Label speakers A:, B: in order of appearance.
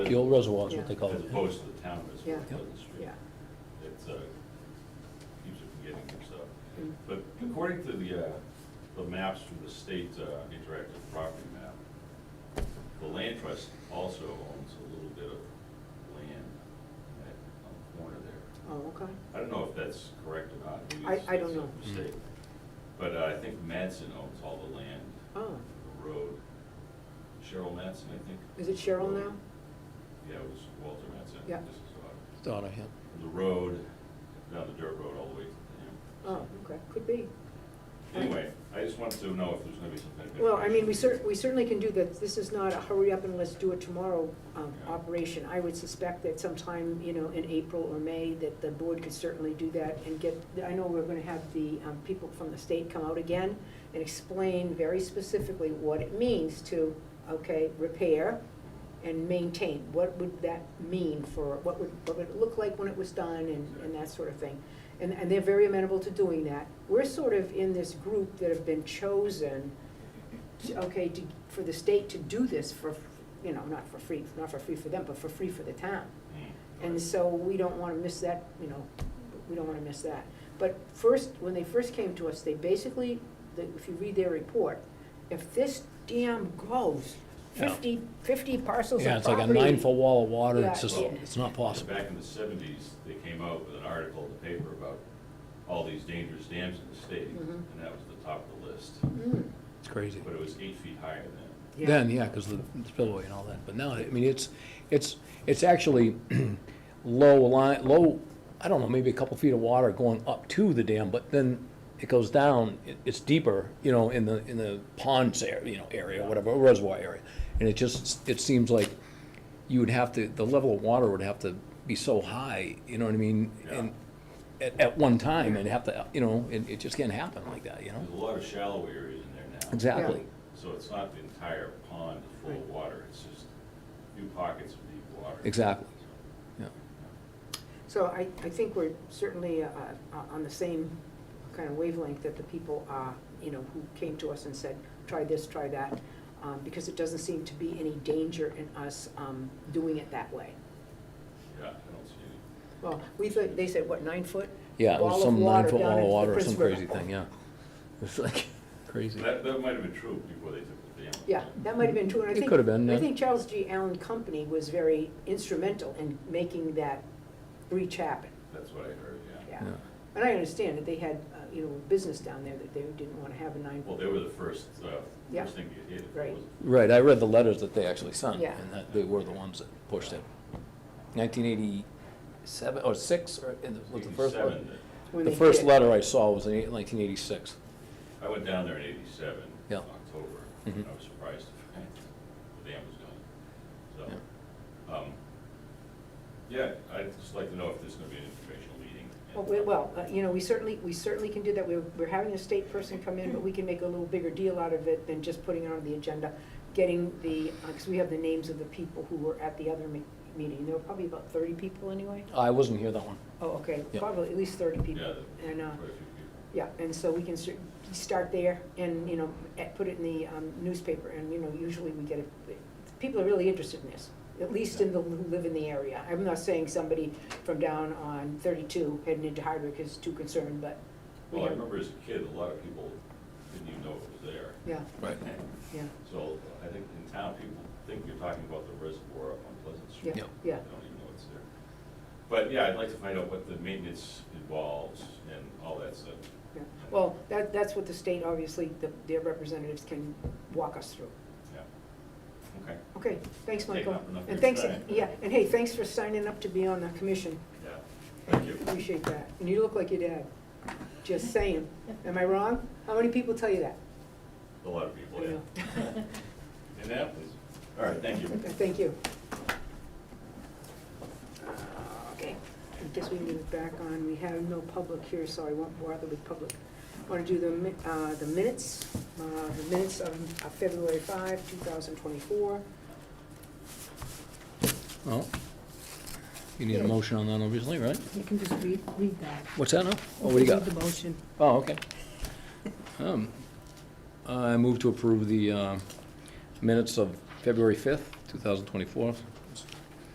A: The old reservoir is what they call
B: As
A: it.
B: opposed to the town reservoir,
A: Yeah.
B: down the street.
A: Yeah.
B: It's, uh, keeps it from getting mixed up.
A: Mm.
B: But according to the, uh, the maps from the state uh, interactive property map, the land trust also owns a little bit of land at, on the corner there.
A: Oh, okay.
B: I don't know if that's correct or not. Maybe
A: I-
B: it's-
A: I don't
B: it's a
A: know.
C: Mm.
B: mistake. But uh, I think Madsen owns all the land,
A: Oh,
B: the road. Cheryl Madsen, I think.
A: is it Cheryl
B: Road.
A: now?
B: Yeah, it was Walter Madsen.
A: Yeah.
B: This is, uh,
C: Donna Hill.
B: the road, down the dirt road all the way to the
A: Oh,
B: dam.
A: okay, could be.
B: Anyway, I just wanted to know if there's gonna be some kind of.
A: Well, I mean, we cer,
B: information.
A: we certainly can do that. This is not a hurry up and let's do it tomorrow, um,
B: Yeah.
A: operation. I would suspect that sometime, you know, in April or May, that the board could certainly do that and get, I know we're gonna have the, um, people from the state come out again and explain very specifically what it means to, okay, repair and maintain. What would that mean for, what would, what would it look like when it was done and, and that sort of thing. And, and they're very amenable to doing that. We're sort of in this group that have been chosen to- okay, to, for the state to do this for, you know, not for free, not for free for them, but for free for the town.
B: Hmm,
A: And
B: right.
A: so we don't wanna miss that, you know, we don't wanna miss that. But first, when they first came to us, they basically, the- if you read their report, if this dam goes,
C: Yeah.
A: fifty, fifty parcels
C: Yeah,
A: of
C: it's like a
A: property.
C: nine-foot wall of water,
A: Yeah,
C: it's just,
B: yeah.
C: it's not possible.
B: Back in the seventies, they came out with an article in the paper about all these dangerous dams in the state,
A: Mhm.
B: and that was the top of the list.
A: Mm,
C: It's crazy.
B: But it was eight feet higher then.
A: yeah.
C: Then, yeah, because the spillway and all that, but now, I mean, it's, it's, it's actually low line, low, I don't know, maybe a couple feet of water going up to the dam, but then it goes down, it, it's deeper, you know, in the, in the ponds area, you know, area, whatever, reservoir area. And it just, it seems like you would have to, the level of water would have to be so high, you know what I mean?
B: Yeah.
C: And at, at one time, and have to, you know, it, it just can't happen like that, you know?
B: There's a lot of shallow areas in there now.
C: Exactly.
B: So it's not the entire pond is full of water, it's just a few pockets of deep water.
C: Exactly.
B: So,
C: Yeah.
A: So I, I think we're certainly uh, uh, on the same kind of wavelength that the people, uh, you know, who came to us and said, try this, try that, um, because it doesn't seem to be any danger in us um, doing it that way.
B: Yeah, I don't see any.
A: Well, we thought, they said, what, nine foot?
C: Yeah, it
A: wall
C: was
A: of
C: some
A: water
C: nine foot
A: down
C: wall of
A: into
C: water
A: the
C: or some
A: Prince River.
C: crazy thing, yeah. It's like crazy.
B: That, that might have been true before they took the dam. out.
A: Yeah, that might have been true, and I
C: It
A: think.
C: could have been,
A: I
C: yeah.
A: think Charles G. Allen Company was very instrumental in making that breach happen,
B: That's what I heard, yeah.
A: yeah.
C: Yeah.
A: And I understand that they had, uh, you know, a business down there that they didn't want to have a nine.
B: Well, they were the first, uh,
A: Yeah.
B: first thing to get hit. It
A: Right.
B: was-
C: Right, I read the letters that they actually sent,
A: Yeah.
C: and that they were the ones that pushed it. Nineteen eighty-seven, or six, or in the, was the first
B: Eighty-seven,
C: letter?
B: that-
A: when
C: The
A: they
C: first
A: did.
C: letter I saw was in nineteen eighty-six.
B: I went down there in eighty-seven,
C: Yeah.
B: October,
C: Mhm.
B: and I was surprised to find the dam was gone. So, um, yeah, I'd just like to know if there's gonna be an informational meeting. and-
A: Well, we- Well, uh, you know, we certainly, we certainly can do that. We're, we're having a state person come in, but we can make a little bigger deal out of it than just putting it on the agenda. Getting the, because we have the names of the people who were at the other me- meeting. There were probably about thirty people anyway.
C: I wasn't here that one.
A: Oh, okay,
C: Yeah.
A: probably at least thirty
B: Yeah,
A: people.
B: there
A: And, uh,
B: were quite a few people.
A: yeah, and so we can cer- start there and, you know, at- put it in the um, newspaper. And, you know, usually we get, a- people are really interested in this, at least in the, who live in the area. I'm not saying somebody from down on 32 heading into Hardwick is too concerned, but we
B: Well, Oh, I
A: have,
B: remember as a kid, a lot of people didn't even know it was there.
A: yeah,
C: Right.
A: yeah,
B: So I think in town, people think you're talking about the reservoir up on Pleasant Street.
A: yeah,
C: Yeah.
A: yeah.
B: I don't even know what's there. But yeah, I'd like to find out what the maintenance involves and all that stuff.
A: yeah. Well, that, that's what the state, obviously, the- their representatives can walk us through.
B: Yeah. Okay,
A: Okay, thanks,
B: Taking
A: Michael.
B: up enough of
A: And
B: your
A: thanks,
B: time.
A: yeah, and hey, thanks for signing up to be on the commission.
B: yeah, thank you.
A: Appreciate that. And you look like your dad. Just saying. Am I wrong? How many people tell you that?
B: A lot of people,
A: I know.
B: yeah. Indianapolis. All right, thank you.
A: Okay, Thank you. Uh, Okay, I guess we move back on. We have no public here, so I won't bother with public. Want to do the, mi- uh, the minutes, uh, the minutes of of February 5, 2024.
C: Well, you need a
D: Yeah.
C: motion on that, obviously, right?
D: You can just read, read that.
C: What's that now? Oh, what do you got?
D: Read The motion.
C: Oh, okay. Um, I move to approve the uh, minutes of February 5th, 2024.